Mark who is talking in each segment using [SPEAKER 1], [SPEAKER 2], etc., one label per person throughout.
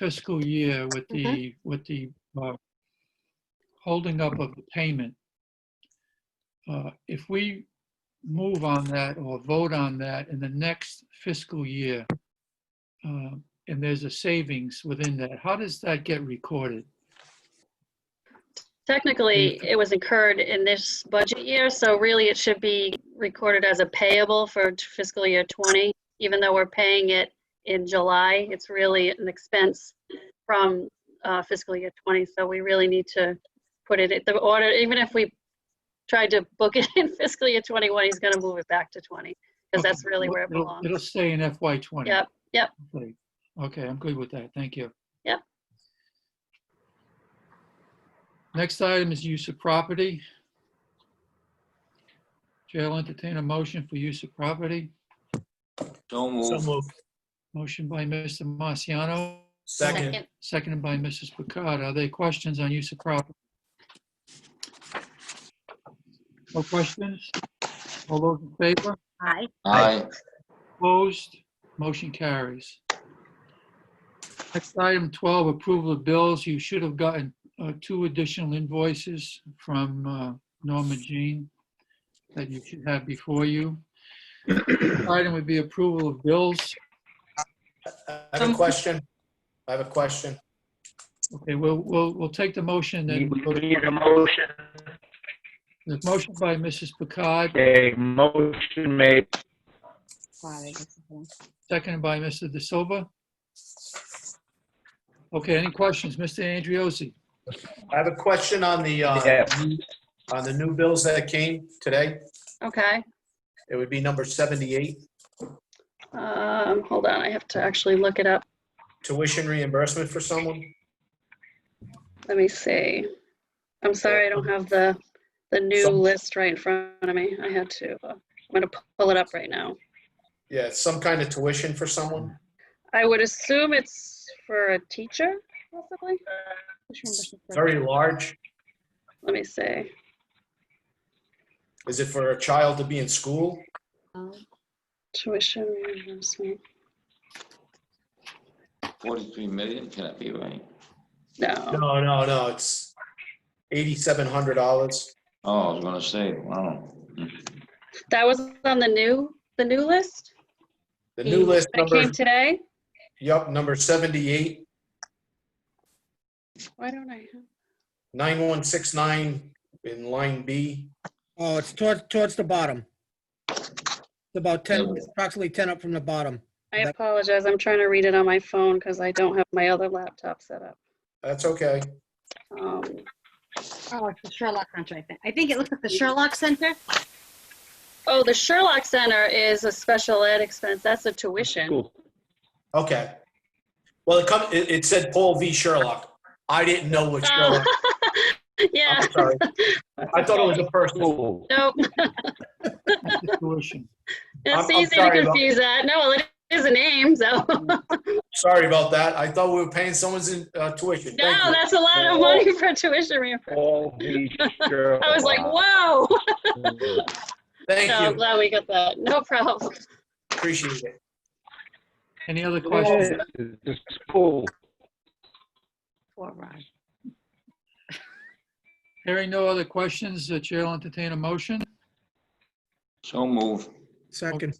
[SPEAKER 1] fiscal year with the,
[SPEAKER 2] Mm-hmm.
[SPEAKER 1] with the uh, holding up of the payment, uh, if we move on that or vote on that in the next fiscal year, uh, and there's a savings within that, how does that get recorded?
[SPEAKER 2] Technically, it was incurred in this budget year, so really it should be recorded as a payable for t- fiscal year 20. Even though we're paying it in July, it's really an expense from uh, fiscal year 20, so we really need to put it, at the order, even if we tried to book it in fiscal year 21, he's going to move it back to 20, because that's
[SPEAKER 1] Okay,
[SPEAKER 2] really where it
[SPEAKER 1] it'll- It'll
[SPEAKER 2] belongs.
[SPEAKER 1] stay in FY '20.
[SPEAKER 2] Yep, yep.
[SPEAKER 1] Okay, Okay, I'm good with that. Thank you.
[SPEAKER 2] Yep.
[SPEAKER 1] Next item is use of property. Chair will entertain a motion for use of property.
[SPEAKER 3] So
[SPEAKER 4] So
[SPEAKER 3] move.
[SPEAKER 4] moved.
[SPEAKER 1] Motion by Mr. Marciano,
[SPEAKER 4] Second.
[SPEAKER 1] seconded by Mrs. Picard. Are there questions on use of property? No questions? All those in favor?
[SPEAKER 2] Aye.
[SPEAKER 3] Aye.
[SPEAKER 1] Opposed, motion carries. Next item 12, approval of bills. You should have gotten uh, two additional invoices from uh, Norma Jean that you should have before you. Next Item would be approval of bills.
[SPEAKER 4] I have a question. I have a question.
[SPEAKER 1] Okay, we'll, we'll, we'll take the motion
[SPEAKER 5] We
[SPEAKER 1] and
[SPEAKER 5] we need a motion,
[SPEAKER 1] the motion by Mrs. Picard,
[SPEAKER 5] a motion made.
[SPEAKER 1] seconded by Mr. De Silva. Okay, any questions? Mr. Andriozzi?
[SPEAKER 4] I have a question on the, uh,
[SPEAKER 5] Yes.
[SPEAKER 4] on the new bills that came today.
[SPEAKER 2] Okay,
[SPEAKER 4] It would be number 78,
[SPEAKER 2] um, hold on, I have to actually look it up.
[SPEAKER 4] tuition reimbursement for someone.
[SPEAKER 2] Let me see. I'm sorry, I don't have the, the new
[SPEAKER 4] Some-
[SPEAKER 2] list right in front of me. I had to, uh, I'm gonna pull it up right now.
[SPEAKER 4] Yeah, it's some kind of tuition for someone.
[SPEAKER 2] I would assume it's for a teacher, possibly?
[SPEAKER 4] Very large.
[SPEAKER 2] Let me see.
[SPEAKER 4] Is it for a child to be in school?
[SPEAKER 2] Tuition reimbursement.
[SPEAKER 3] 43 million, can that be right?
[SPEAKER 2] No,
[SPEAKER 4] No, no, no, it's $8,700.
[SPEAKER 3] Oh, I was gonna say, wow.
[SPEAKER 2] that was on the new, the new list?
[SPEAKER 4] The new list
[SPEAKER 2] That
[SPEAKER 4] number,
[SPEAKER 2] came today?
[SPEAKER 4] yep, number 78,
[SPEAKER 2] Why don't I? have-
[SPEAKER 4] 9169 in line B.
[SPEAKER 6] Oh, it's towards, towards the bottom. It's about 10,
[SPEAKER 3] Yeah.
[SPEAKER 6] approximately 10 up from the bottom.
[SPEAKER 2] I apologize. I'm trying to read it on my phone because I don't have my other laptop set up.
[SPEAKER 4] That's okay.
[SPEAKER 2] Um,
[SPEAKER 7] Oh, it's the Sherlock Center, I think. I think it looks like the Sherlock Center.
[SPEAKER 2] Oh, the Sherlock Center is a special ed expense. That's a tuition.
[SPEAKER 5] Cool.
[SPEAKER 4] Okay. Well, it come, it, it said Paul V. Sherlock. I didn't know which
[SPEAKER 2] Oh,
[SPEAKER 4] Sherlock.
[SPEAKER 2] yeah.
[SPEAKER 4] I'm sorry. I thought it was a person.
[SPEAKER 5] Cool.
[SPEAKER 2] Nope.
[SPEAKER 1] Tuition.
[SPEAKER 2] It's
[SPEAKER 4] I'm
[SPEAKER 2] easy to
[SPEAKER 4] sorry about-
[SPEAKER 2] confuse that. No, it is a name, so. No,
[SPEAKER 4] Sorry about that. I thought we were paying someone's uh, tuition. Thank you.
[SPEAKER 2] that's a lot of money for tuition reimbursement.
[SPEAKER 5] All these Sherlock.
[SPEAKER 2] I was like, whoa. No, I'm
[SPEAKER 4] Thank you.
[SPEAKER 2] glad we got that. No problem.
[SPEAKER 4] Appreciate it.
[SPEAKER 1] Any other questions?
[SPEAKER 5] This is cool.
[SPEAKER 7] Poor Ron.
[SPEAKER 1] Hearing no other questions, the chair will entertain a motion.
[SPEAKER 3] So move.
[SPEAKER 6] Second.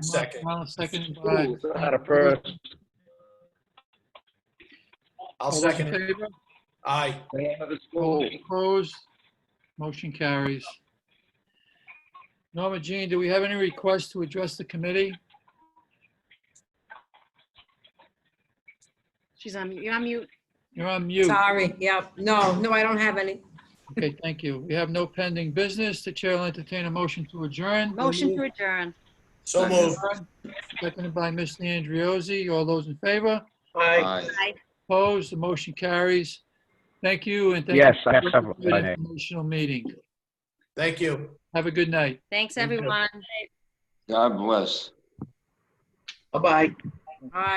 [SPEAKER 4] Second.
[SPEAKER 1] Marciano, Seconded by.
[SPEAKER 5] Cool. Not a first.
[SPEAKER 4] I'll
[SPEAKER 1] All those
[SPEAKER 4] second
[SPEAKER 1] in
[SPEAKER 4] it.
[SPEAKER 1] favor?
[SPEAKER 4] Aye.
[SPEAKER 5] It's
[SPEAKER 1] All
[SPEAKER 5] cool.
[SPEAKER 1] those Opposed? Motion carries. Norma Jean, do we have any requests to address the committee?
[SPEAKER 7] She's on, mute. you're on mute.
[SPEAKER 1] You're on mute.
[SPEAKER 8] Sorry, yep. No, no, I don't have any.
[SPEAKER 1] Okay, thank you. We have no pending business. The chair will entertain a motion to adjourn.
[SPEAKER 7] Motion to adjourn.
[SPEAKER 4] So moved.
[SPEAKER 1] Seconded by Mr. Andriozzi. All those in favor?
[SPEAKER 3] Aye.
[SPEAKER 1] Opposed? The motion carries. Thank you and thank you
[SPEAKER 5] Yes, I have
[SPEAKER 1] for
[SPEAKER 5] several.
[SPEAKER 1] the informational meeting.
[SPEAKER 4] Thank you.
[SPEAKER 1] Have a good night.
[SPEAKER 7] Thanks, everyone.
[SPEAKER 3] God bless.
[SPEAKER 5] Bye-bye.
[SPEAKER 8] Aye.